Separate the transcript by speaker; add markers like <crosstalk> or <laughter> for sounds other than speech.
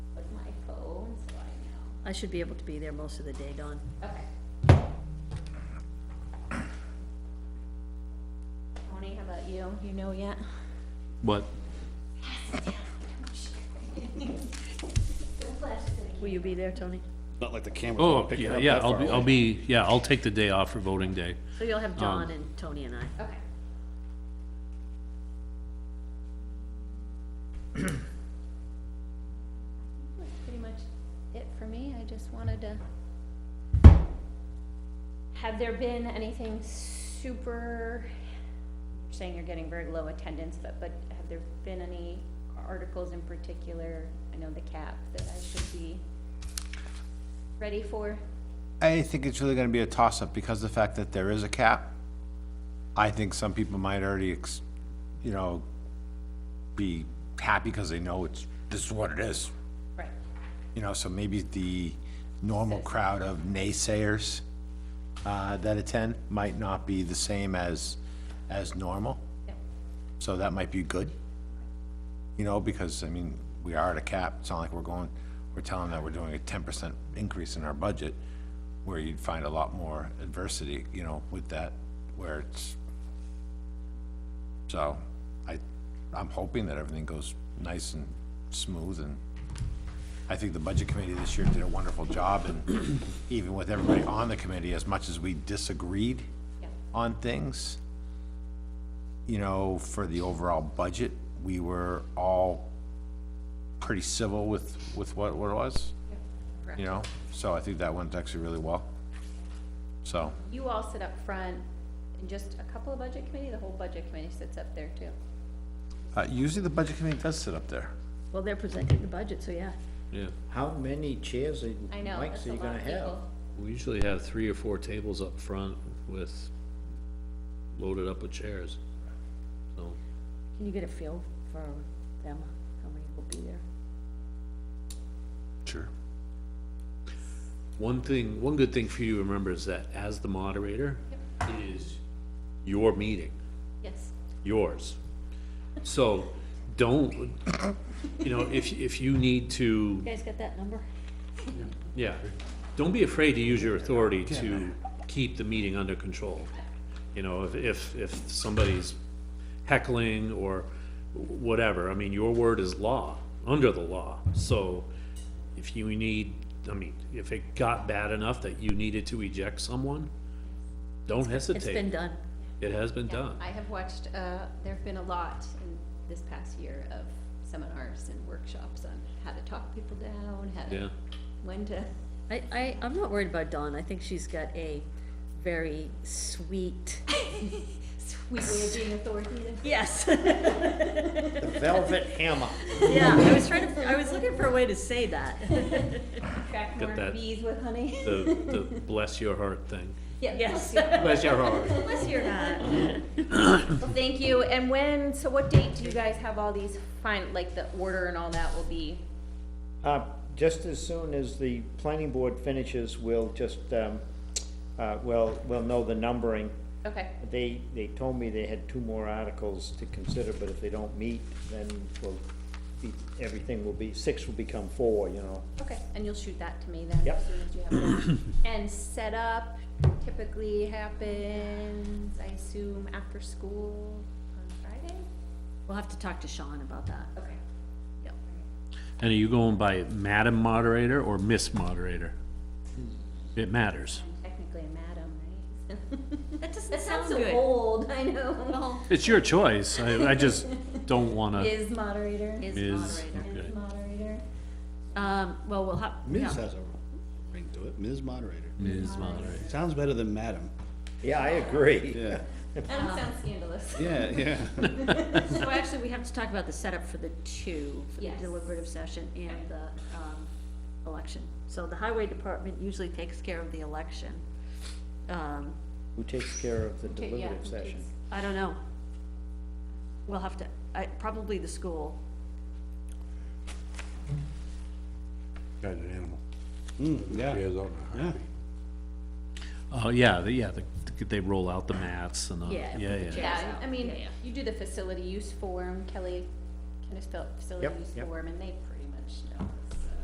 Speaker 1: I should be able to be there most of the day, Dawn.
Speaker 2: Okay. Tony, how about you? You know yet?
Speaker 3: What?
Speaker 1: Will you be there, Tony?
Speaker 4: Not like the camera.
Speaker 3: Oh, yeah, yeah, I'll be, I'll be, yeah, I'll take the day off for voting day.
Speaker 1: So you'll have Dawn and Tony and I.
Speaker 2: Okay. That's pretty much it for me. I just wanted to. Have there been anything super, you're saying you're getting very low attendance, but, but have there been any articles in particular? I know the cap that I should be ready for.
Speaker 5: I think it's really gonna be a toss-up because of the fact that there is a cap. I think some people might already, ex- you know, be happy because they know it's, this is what it is.
Speaker 2: Right.
Speaker 5: You know, so maybe the normal crowd of naysayers, uh, that attend might not be the same as, as normal.
Speaker 2: Yep.
Speaker 5: So that might be good. You know, because, I mean, we are at a cap, it's not like we're going, we're telling them that we're doing a ten percent increase in our budget, where you'd find a lot more adversity, you know, with that, where it's, so, I, I'm hoping that everything goes nice and smooth, and I think the budget committee this year did a wonderful job, and even with everybody on the committee, as much as we disagreed
Speaker 2: Yeah.
Speaker 5: on things, you know, for the overall budget, we were all pretty civil with, with what, what it was. You know, so I think that went actually really well. So,
Speaker 2: You all sit up front, and just a couple of budget committee, the whole budget committee sits up there too.
Speaker 5: uh, usually the budget committee does sit up there.
Speaker 1: Well, they're presenting the budget, so yeah.
Speaker 3: Yeah,
Speaker 6: How many chairs and
Speaker 2: I know,
Speaker 6: mics
Speaker 2: that's
Speaker 6: are
Speaker 2: a
Speaker 6: you
Speaker 2: lot
Speaker 6: gonna
Speaker 2: of
Speaker 6: have?
Speaker 2: people.
Speaker 3: we usually have three or four tables up front with, loaded up with chairs. So,
Speaker 1: Can you get a feel for them, how many will be there?
Speaker 5: Sure.
Speaker 3: one thing, one good thing for you to remember is that as the moderator, it is your meeting.
Speaker 2: Yes,
Speaker 3: yours. So, don't, you know, if, if you need to,
Speaker 1: You guys got that number?
Speaker 3: yeah, don't be afraid to use your authority to keep the meeting under control. You know, if, if, if somebody's heckling or whatever, I mean, your word is law, under the law. So, if you need, I mean, if it got bad enough that you needed to eject someone, don't
Speaker 1: It's been
Speaker 3: hesitate.
Speaker 1: done.
Speaker 3: It has been
Speaker 2: yeah,
Speaker 3: done.
Speaker 2: I have watched, uh, there've been a lot in this past year of seminars and workshops on how to talk people down, how
Speaker 3: Yeah.
Speaker 2: to, when to, <laughs>
Speaker 1: I, I, I'm not worried about Dawn. I think she's got a very sweet,
Speaker 2: we way of being authoritative.
Speaker 1: <laughs> yes.
Speaker 2: <laughs>
Speaker 6: Velvet hammer.
Speaker 1: <laughs> Yeah, I was trying to, I was looking for a way to say that.
Speaker 2: Track
Speaker 3: Get
Speaker 2: more
Speaker 3: that.
Speaker 2: bees with honey. <laughs>
Speaker 3: The, the bless your heart thing.
Speaker 2: Yeah,
Speaker 1: <laughs> Yes.
Speaker 3: Bless your heart.
Speaker 2: Unless you're not. Well, thank you, and when, so what date do you guys have all these fine, like the order and all that will be?
Speaker 6: Uh, just as soon as the planning board finishes, we'll just, um, uh, we'll, we'll know the numbering.
Speaker 2: Okay,
Speaker 6: They, they told me they had two more articles to consider, but if they don't meet, then we'll, be- everything will be, six will become four, you know.
Speaker 2: Okay, and you'll shoot that to me then?
Speaker 6: Yep.
Speaker 2: as soon as you have it. And setup typically happens, I assume, after school on Friday?
Speaker 1: We'll have to talk to Sean about that.
Speaker 2: Okay. Yep.
Speaker 3: And are you going by Madam Moderator or Miss Moderator? It matters.
Speaker 2: I'm technically a madam, right? <laughs>
Speaker 1: That doesn't
Speaker 2: That sounds so old, I know.
Speaker 1: Well,
Speaker 3: It's your choice. I, I just don't
Speaker 2: <laughs>
Speaker 3: wanna.
Speaker 2: Is moderator.
Speaker 1: is
Speaker 3: Is-
Speaker 1: moderator.
Speaker 3: okay.
Speaker 2: Moderator.
Speaker 1: Um, well, we'll have,
Speaker 4: Ms.
Speaker 1: yeah,
Speaker 4: has a ring to it, Ms. Moderator.
Speaker 3: Ms. Moderator.
Speaker 4: Sounds better than Madam,
Speaker 6: Yeah, I agree.
Speaker 4: yeah,
Speaker 2: That don't sound scandalous.
Speaker 4: yeah, yeah.
Speaker 1: so actually, we have to talk about the setup for the two, for the
Speaker 2: Yes.
Speaker 1: deliberative session and the, um, election. So the highway department usually takes care of the election. Um,
Speaker 6: Who takes care of the
Speaker 2: Okay, yeah,
Speaker 6: deliberative
Speaker 2: okay.
Speaker 6: session?
Speaker 1: I don't know. We'll have to, I, probably the school.
Speaker 7: Got an animal.
Speaker 4: <laughs> Mm, yeah,
Speaker 7: Years old now.
Speaker 4: yeah.
Speaker 3: Oh, yeah, the, yeah, the, they roll out the mats and the,
Speaker 1: Yeah,
Speaker 3: yeah,
Speaker 1: put the
Speaker 3: yeah.
Speaker 2: Yeah, I mean,
Speaker 1: Yeah, yeah.
Speaker 2: you do the facility use form, Kelly, kind of spelled facility
Speaker 6: Yep,
Speaker 2: use
Speaker 6: yep.
Speaker 2: form, and they pretty much know.